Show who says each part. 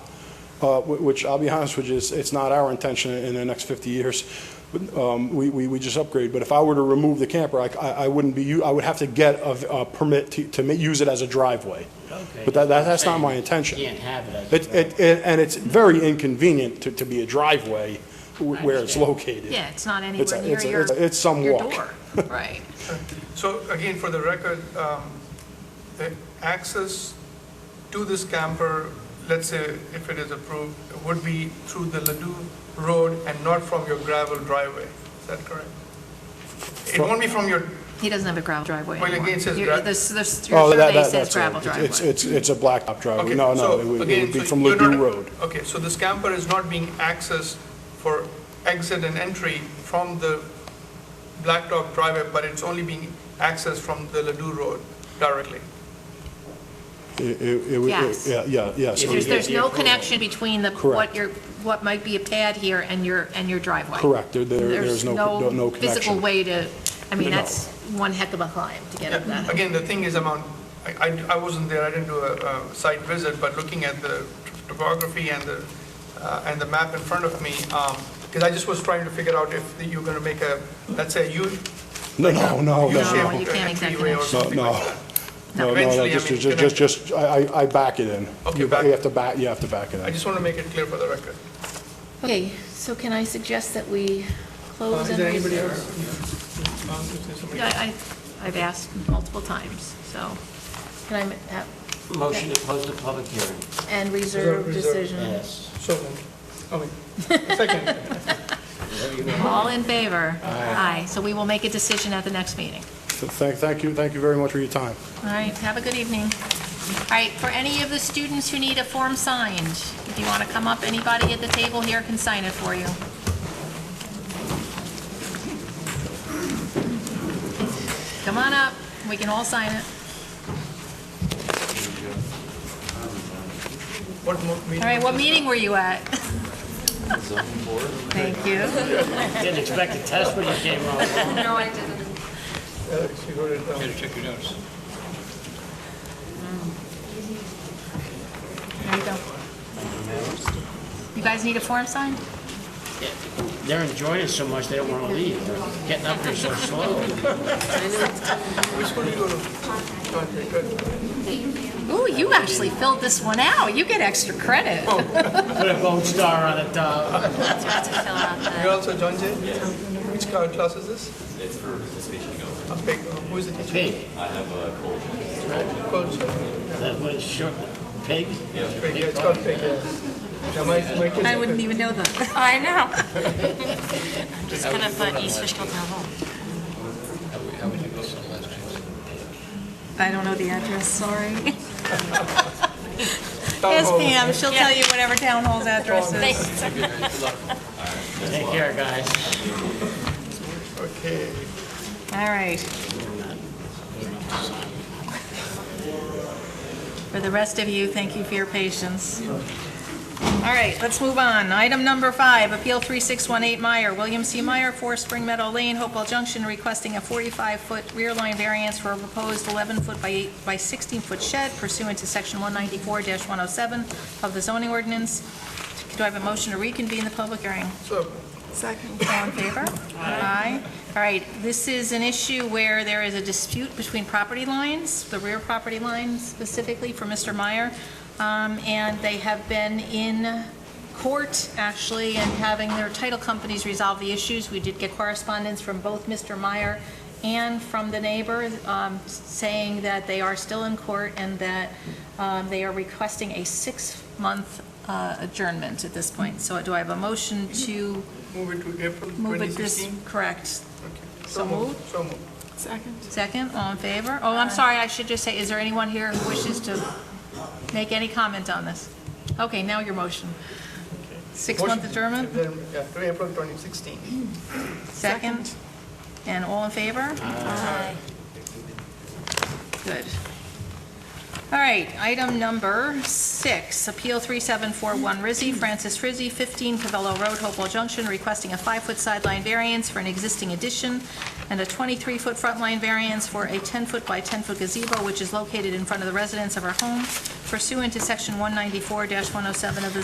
Speaker 1: uh, wh- which I'll be honest with you, it's- it's not our intention in the next 50 years. But, um, We we we just upgrade, but if I were to remove the camper, I c- I I wouldn't be, u- I would have to get a v- a permit to- to ma- use it as a driveway.
Speaker 2: Okay.
Speaker 1: But that- that- that's not
Speaker 2: Saying
Speaker 1: my intention.
Speaker 2: you Can't have it as a
Speaker 1: It- it- it- And it's very inconvenient to to be a driveway wh- where it's
Speaker 2: understand.
Speaker 1: located.
Speaker 3: Yeah, it's not
Speaker 1: It's a-
Speaker 3: anywhere near
Speaker 1: it's a-
Speaker 3: your,
Speaker 1: it's a- it's some
Speaker 3: your
Speaker 1: walk.
Speaker 3: door. Right.
Speaker 4: So again, for the record, um, the access to this camper, let's say if it is approved, would be through the Ladue Road and not from your gravel driveway. Is that correct? It won't be from your,
Speaker 3: He doesn't have a gravel driveway
Speaker 4: Well, again,
Speaker 3: anymore.
Speaker 4: it says
Speaker 3: Your-
Speaker 4: gra-
Speaker 3: this- this-
Speaker 1: Oh,
Speaker 3: Your
Speaker 1: that-
Speaker 3: survey
Speaker 1: that-
Speaker 3: says
Speaker 1: that's it.
Speaker 3: gravel
Speaker 1: It's-
Speaker 3: driveway.
Speaker 1: It's, it's, it's a blacktop driveway.
Speaker 4: okay.
Speaker 1: Uh, No,
Speaker 4: so
Speaker 1: no, it would it
Speaker 4: again,
Speaker 1: would be
Speaker 4: so
Speaker 1: from
Speaker 4: you're
Speaker 1: Ladue
Speaker 4: not-
Speaker 1: Road.
Speaker 4: Okay, so this camper is not being accessed for exit and entry from the Blacktop driveway, but it's only being accessed from the Ladue Road directly.
Speaker 1: It- it- it would- it-
Speaker 3: Yes.
Speaker 1: Yeah, yeah, yes.
Speaker 2: If
Speaker 3: There's,
Speaker 2: you get
Speaker 3: there's
Speaker 2: the
Speaker 3: no
Speaker 2: approval.
Speaker 3: connection between the,
Speaker 1: Correct.
Speaker 3: what your, what might be a pad here and your, and your driveway.
Speaker 1: Correct. There- there- there's no- no- no
Speaker 3: Physical
Speaker 1: connection.
Speaker 3: way to, I mean,
Speaker 1: No.
Speaker 3: that's one heck of a climb to get up
Speaker 4: Yeah,
Speaker 3: that.
Speaker 4: Again, the thing is, I'm on, I, I- I wasn't there, I didn't do a, a site visit, but looking at the topography and the, uh, and the map in front of me, um, because I just was trying to figure out if you're going to make a, let's say, U.
Speaker 1: No, no, no,
Speaker 4: U-shaped
Speaker 3: No,
Speaker 1: no,
Speaker 3: you can't make that
Speaker 4: entryway or
Speaker 3: connection.
Speaker 1: no,
Speaker 4: something
Speaker 1: no.
Speaker 4: like that.
Speaker 1: No, no,
Speaker 4: Eventually, I
Speaker 1: just,
Speaker 4: mean,
Speaker 1: just,
Speaker 4: gonna-
Speaker 1: just, just- I, I I back it in.
Speaker 4: Okay,
Speaker 1: You ba-
Speaker 4: back-
Speaker 1: you have to back, you have to back it
Speaker 4: I
Speaker 1: in.
Speaker 4: just want to make it clear for the record.
Speaker 3: Okay, so can I suggest that we
Speaker 4: Uh,
Speaker 3: close
Speaker 4: Is
Speaker 3: and
Speaker 4: there anybody
Speaker 3: reserve?
Speaker 4: else? Yeah. Um, if there's somebody-
Speaker 3: Yeah, I, I've asked multiple times, so can I, ma- have-
Speaker 2: Motion to close the public hearing.
Speaker 3: and reserve
Speaker 4: Reserve.
Speaker 3: decision?
Speaker 2: Yes.
Speaker 4: So, moved. I mean, second.
Speaker 3: All in favor? Aye. So we will make a decision at the next meeting.
Speaker 1: So Thank, thank you, thank you very much for your time.
Speaker 3: All right, have a good evening. All right, for any of the students who need a form signed, if you want to come up, anybody at the table here can sign it for you. Come on up, we can all sign it.
Speaker 4: What mo- meeting?
Speaker 3: All right, what meeting were you at? Thank you.
Speaker 2: Didn't expect a test when you came on.
Speaker 3: No, I didn't.
Speaker 4: Alex, you uh, wrote it down.
Speaker 3: There you go. You guys need a form signed?
Speaker 2: They're enjoying it so much, they don't want to leave. They're Getting up here so slow.
Speaker 4: Which school do you go to? Okay, good.
Speaker 3: Ooh, you actually filled this one out. You get extra credit.
Speaker 2: Put a gold star on uh, the top.
Speaker 4: You're also John Jay? Which ca- class is this? It's for participation. A pig, who is the teacher?
Speaker 2: Pig.
Speaker 4: Coach, yeah,
Speaker 2: That was short. Pig?
Speaker 4: pig, yeah, it's called pig, yeah. Yeah, my, my kids.
Speaker 3: I wouldn't even know that.
Speaker 5: I know. Just kind of uh, East Fishkill Town Hall. I don't know the address, sorry.
Speaker 4: Town hall.
Speaker 5: she'll tell you whatever town hall's address is.
Speaker 2: Take care, guys.
Speaker 4: Okay.
Speaker 5: All right.
Speaker 3: For the rest of you, thank you for your patience. All right, let's move on. Item number five, Appeal 3618 Meyer, William C. Meyer, 4 Spring Meadow Lane, Hopewell Junction, requesting a 45-foot rear line variance for a proposed 11-foot by 8 by 16-foot shed pursuant to Section 194-107 of the zoning ordinance. Do I have a motion to reconvene the public hearing?
Speaker 4: So,
Speaker 5: Second.
Speaker 3: All in favor? Aye. All right, this is an issue where there is a dispute between property lines, the rear property line specifically for Mr. Meyer, um, and they have been in court, actually, and having their title companies resolve the issues. We did get correspondence from both Mr. Meyer and from the neighbor um, saying that they are still in court and that um, they are requesting a six-month uh, adjournment at this point. So do I have a motion to
Speaker 4: move it to April
Speaker 3: Move it this,
Speaker 4: 2016?
Speaker 3: correct.
Speaker 4: Okay.
Speaker 3: so moved.
Speaker 4: So moved.
Speaker 5: Second.
Speaker 3: Second, all in favor? Oh, I'm sorry, I should just say, is there anyone here who wishes to make any comment on this? Okay, now your motion. Six-month
Speaker 4: Motion-
Speaker 3: adjournment,
Speaker 4: Adjournment, Yeah, to April 2016.
Speaker 3: second, and all in favor? Aye. Good. All right, item number six, Appeal 3741 Rizzi, Francis Rizzi, 15 Cavello Road, Hopewell Junction, requesting a five-foot sideline variance for an existing addition and a 23-foot front line variance for a 10-foot by 10-foot gazebo, which is located in front oh of the residence of her home pursuant to Section 194-107 of the